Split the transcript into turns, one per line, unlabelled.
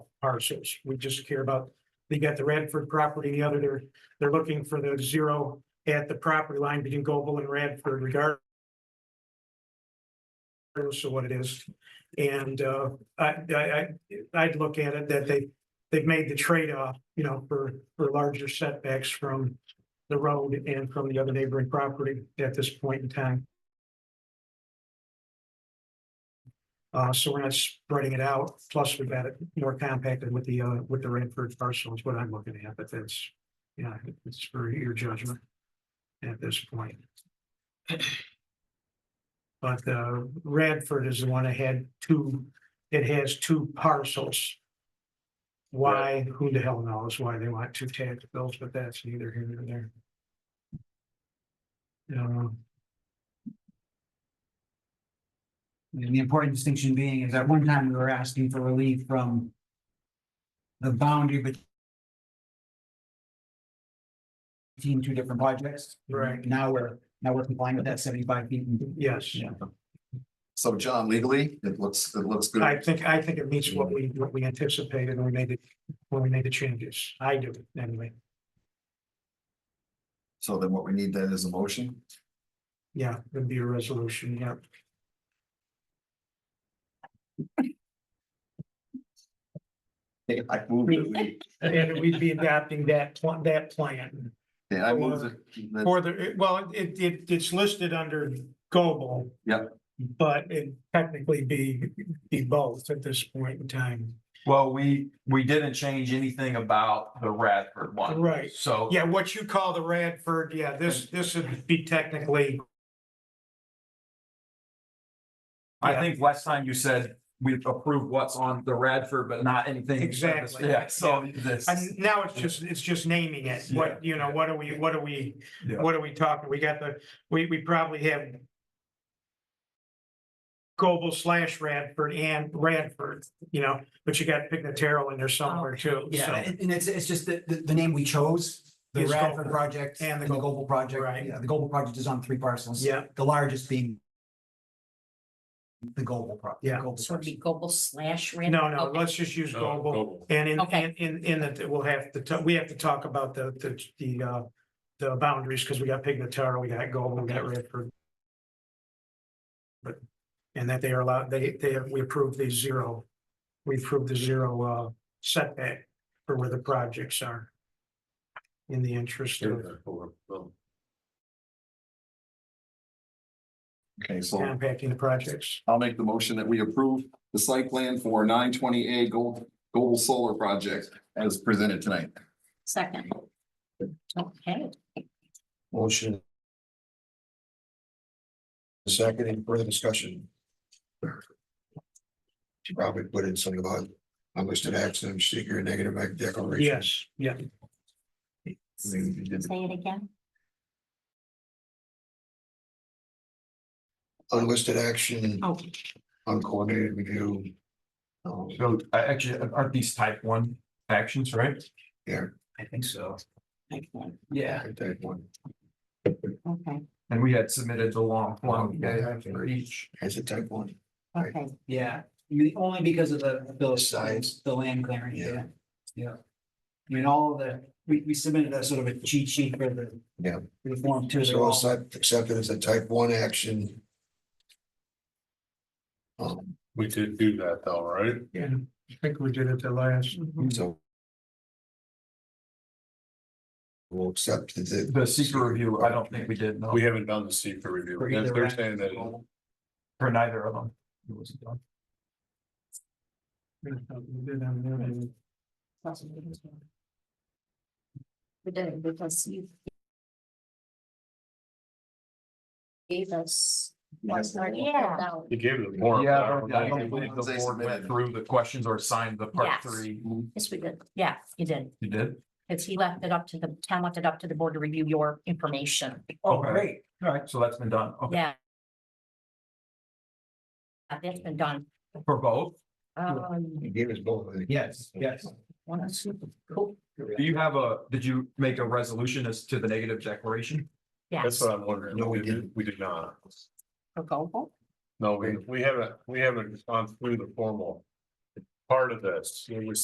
parcels. We just care about, they got the Radford property, the other, they're, they're looking for the zero at the property line between Gobel and Radford regard. Regardless of what it is. And, uh, I, I, I, I'd look at it that they, they've made the trade-off, you know, for, for larger setbacks from the road and from the other neighboring property at this point in time. Uh, so we're not spreading it out, plus we've got it more compacted with the, uh, with the Redford parcel is what I'm looking at, but that's, yeah, it's for your judgment at this point. But, uh, Radford is the one that had two, it has two parcels. Why, who the hell knows why they want two tax bills, but that's neither here nor there. Um,
And the important distinction being is at one time we were asking for relief from the boundary bet- between two different projects.
Right.
Now we're, now we're complying with that seventy-five feet. and-
yes.
Yeah.
So John, legally, it looks, it looks
I
good.
think, I think it meets what we, what we anticipated when we made it, when we made the changes. I do, anyway.
So then what we need then is a motion.
Yeah, it'd be a resolution, yeah.
I move that we,
And we'd be adopting that, pl- that plan.
yeah, I move that- that,
For the, well, it, it, it's listed under Gobel.
Yeah.
But it technically be, be both at this point in time.
Well, we, we didn't change anything about the Radford one.
Right.
So.
Yeah, what you call the Radford, yeah, this, this would be technically,
I
Yeah.
think last time you said we approved what's on the Radford, but not anything.
Exactly.
Yeah, so this.
and now it's just, it's just naming it. What, you know, what are we, what are we,
Yeah.
what are we talking? We got the, we, we probably have Gobel slash Radford and Radford, you know, but you got Pignataro in there somewhere too,
Yeah,
so.
and and it's, it's just the, the, the name we chose, the
Is
Radford
Gobel.
project
And
and
the
the Global project.
Right.
Yeah, The Global project is on three parcels.
Yeah,
The largest being the Global project.
Yeah.
So it'd be Gobel slash Rand.
no, no,
Okay.
let's just use
Oh,
Gobel
Oh,
and in,
Okay.
and in, in that, we'll have to, ta- we have to talk about the, the, the, uh, the boundaries, because we got Pignataro, we got Gobel, we got Radford. But, and that they are allowed, they, they, have- we approved the zero, we approved the zero, uh, setback for where the projects are. In the
oh,
interest of
okay, so
compacting the projects.
I'll make the motion that we approve the site plan for nine twenty A Gold, Gold Solar Project as presented tonight.
Second. Okay,
Motion. Second, any further discussion? She probably put in something about unlisted action, seeker, negative act declaration.
Yes, yeah,
I mean, you did-
say it again.
Unlisted action,
Oh,
uncoordinated review. Um,
So I actually, aren't these type one actions, right?
I think so.
okay,
Yeah.
I take one.
okay,
And we had submitted the long one.
Yeah.
For each.
As a type one,
okay.
Yeah, I mean, only because of the, the
Size.
size, the land clearing,
Yeah.
yeah, yeah. I mean, all of the, we, we submitted a sort of a cheat sheet for the.
Yeah.
for the form two, they're
so
all,
it's not accepted as a type one action. Um,
We did do that though, right?
and I think we did it the last,
so. We'll accept the.
The secret review, I don't think we did, no,
We haven't done the secret review.
For
They're-
either
They're
round.
saying that
for neither of them. It wasn't done.
we did on the other.
We did, because you gave us.
Yes.
Yeah.
he gave it a warrant.
Yeah, I don't- I don't
think-
believe the board went through the questions or signed the part
Yes.
three.
Yes, we did. Yeah, you did.
You did?
Because he left it up to the, town left it up to the board to review your information.
Oh,
oh, great,
All right, so that's been done. Okay,
Yeah. Uh, That's been done.
for both.
Um,
You gave us both. I think.
yes, yes.
one, two, cool.
Do you have a, did you make a resolution as to the negative declaration?
Yes,
That's what I'm wondering.
No, we didn't.
We did not.
for Gobel.
No, we, we haven't, we haven't gone through the formal part of this. We